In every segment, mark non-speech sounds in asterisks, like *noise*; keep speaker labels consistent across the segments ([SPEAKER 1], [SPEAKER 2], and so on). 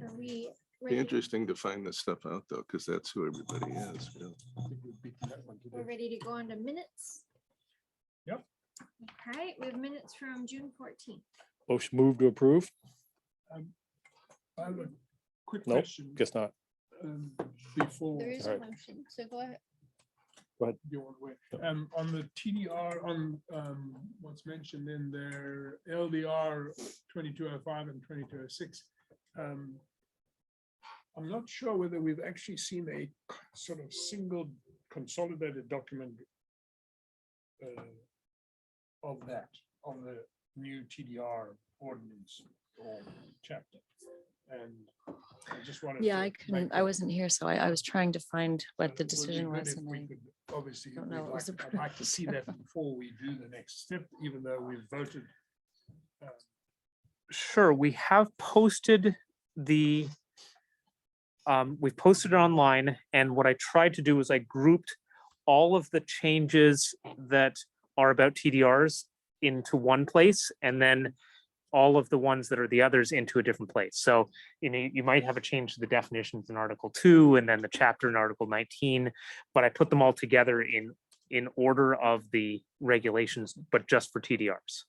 [SPEAKER 1] Are we
[SPEAKER 2] Be
[SPEAKER 1] ready?
[SPEAKER 2] interesting to find this stuff out though, because that's who everybody is. you know.
[SPEAKER 1] We're ready to go on to minutes?
[SPEAKER 3] Yep.
[SPEAKER 1] All right, we have minutes from June fourteenth.
[SPEAKER 4] Motion Oh, move to approve?
[SPEAKER 3] I have a quick
[SPEAKER 4] Nope.
[SPEAKER 3] question.
[SPEAKER 4] Guess not.
[SPEAKER 3] um, Before.
[SPEAKER 1] There is
[SPEAKER 4] all
[SPEAKER 1] a
[SPEAKER 4] right.
[SPEAKER 1] motion, so go ahead.
[SPEAKER 3] the old way.
[SPEAKER 4] Yep.
[SPEAKER 3] Um, on the TDR, on, um, what's mentioned in their LDR twenty-two oh five and twenty-two oh six. Um, I'm not sure whether we've actually seen a c- sort of single consolidated document uh, of that, of the new TDR ordinance or chapter. And I just wanted.
[SPEAKER 5] Yeah,
[SPEAKER 3] to
[SPEAKER 5] I
[SPEAKER 3] make
[SPEAKER 5] couldn't, I
[SPEAKER 3] that-
[SPEAKER 5] wasn't here, so I, I was trying to find what the
[SPEAKER 3] it would be
[SPEAKER 5] decision
[SPEAKER 3] good
[SPEAKER 5] was.
[SPEAKER 3] if
[SPEAKER 5] and
[SPEAKER 3] we
[SPEAKER 5] I-
[SPEAKER 3] could- Obviously,
[SPEAKER 5] don't
[SPEAKER 3] we'd
[SPEAKER 5] know what was
[SPEAKER 3] like- I'd like to see
[SPEAKER 5] *laughs*
[SPEAKER 3] that before we do the next step, even though we've voted.
[SPEAKER 6] Sure, we have posted the, um, we posted it online, and what I tried to do is I grouped all of the changes that are about TDRs into one place, and then all of the ones that are the others into a different place. So, you know, you might have a change to the definitions in Article two, and then the chapter in Article nineteen, but I put them all together in, in order of the regulations, but just for TDRs.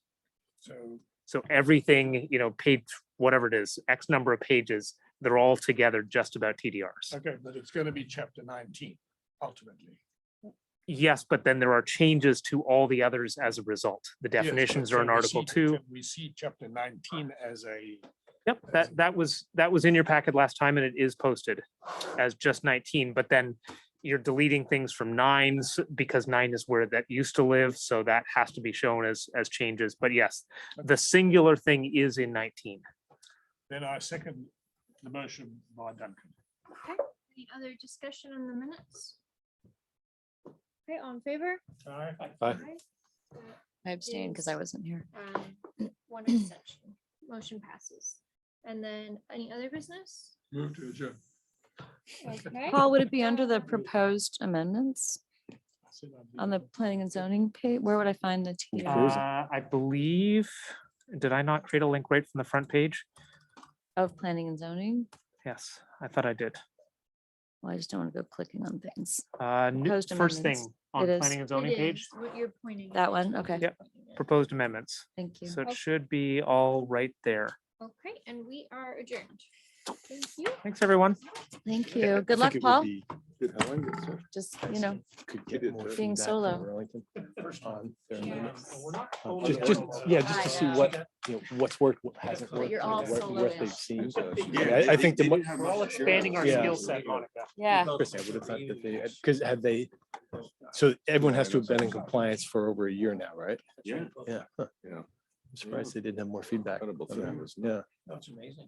[SPEAKER 3] So
[SPEAKER 6] So everything, you know, page, whatever it is, X number of pages, they're all together just about TDRs.
[SPEAKER 3] Okay, but it's going to be chapter nineteen ultimately.
[SPEAKER 6] Yes, but then there are changes to all the others as a result. The
[SPEAKER 3] Yes,
[SPEAKER 6] definitions
[SPEAKER 3] but
[SPEAKER 6] are in
[SPEAKER 3] can we
[SPEAKER 6] Article
[SPEAKER 3] see-
[SPEAKER 6] two.
[SPEAKER 3] can We see chapter nineteen as a,
[SPEAKER 6] Yep,
[SPEAKER 3] as a-
[SPEAKER 6] that, that was, that was in your packet last time and it is posted as just nineteen, but then you're deleting things from nines because nine is where that used to live, so that has to be shown as, as changes. But yes, the singular thing is in nineteen.
[SPEAKER 3] then I second the motion by Duncan.
[SPEAKER 1] Any other discussion on the minutes? Okay, all in favor?
[SPEAKER 3] Aye.
[SPEAKER 4] Aye.
[SPEAKER 1] Aye.
[SPEAKER 5] I abstained because I wasn't here.
[SPEAKER 1] Um, One exception, motion passes. And then any other business?
[SPEAKER 3] Move to adjourn.
[SPEAKER 1] Okay.
[SPEAKER 5] Paul, would it be under the proposed amendments on the planning and zoning page? Where would I find the
[SPEAKER 4] Where
[SPEAKER 5] TDR?
[SPEAKER 4] is it?
[SPEAKER 6] Uh, I believe, did I not create a link right from the front page?
[SPEAKER 5] Of planning and zoning?
[SPEAKER 6] Yes, I thought I did.
[SPEAKER 5] Well, I just don't want to go clicking on things.
[SPEAKER 6] Uh, new-
[SPEAKER 5] Proposed
[SPEAKER 6] first
[SPEAKER 5] amendments.
[SPEAKER 6] thing on
[SPEAKER 5] It is.
[SPEAKER 6] planning and
[SPEAKER 1] It
[SPEAKER 6] zoning page,
[SPEAKER 1] is What you're pointing.
[SPEAKER 5] That
[SPEAKER 1] at.
[SPEAKER 5] one? Okay.
[SPEAKER 6] Yep. proposed amendments.
[SPEAKER 5] Thank you.
[SPEAKER 6] So it
[SPEAKER 1] Okay.
[SPEAKER 6] should be all right there.
[SPEAKER 1] Okay, and we are adjourned. Thank you.
[SPEAKER 6] Thanks, everyone.
[SPEAKER 5] Thank
[SPEAKER 2] Yeah, I
[SPEAKER 5] you. Good
[SPEAKER 2] think
[SPEAKER 5] luck,
[SPEAKER 2] it would
[SPEAKER 5] Paul.
[SPEAKER 2] be good. How long is it?
[SPEAKER 5] Just, you know,
[SPEAKER 2] Could get more
[SPEAKER 5] being
[SPEAKER 7] feedback from
[SPEAKER 5] solo.
[SPEAKER 7] Burlington on their
[SPEAKER 1] Yeah.
[SPEAKER 7] minutes.
[SPEAKER 4] Just- just- yeah, just to see what- You know, what's worked, what hasn't
[SPEAKER 5] But
[SPEAKER 4] worked,
[SPEAKER 5] you're all
[SPEAKER 4] and what-
[SPEAKER 5] solo
[SPEAKER 4] what they've
[SPEAKER 5] now.
[SPEAKER 4] seen.
[SPEAKER 2] feedback.
[SPEAKER 4] Yeah, I- I think the. mo-
[SPEAKER 6] We're all expanding our
[SPEAKER 4] Yeah.
[SPEAKER 6] skill set, Monica.
[SPEAKER 5] yeah.
[SPEAKER 4] Chris, I would have thought that uh, they, because have they, so everyone has to have been in compliance for over a year now, right?
[SPEAKER 7] Yeah.
[SPEAKER 4] Yeah. huh.
[SPEAKER 2] Yeah.
[SPEAKER 4] I'm surprised they didn't have more feedback.
[SPEAKER 2] Incredible
[SPEAKER 4] on that.
[SPEAKER 2] thing, isn't it?
[SPEAKER 4] Yeah.
[SPEAKER 7] That's amazing.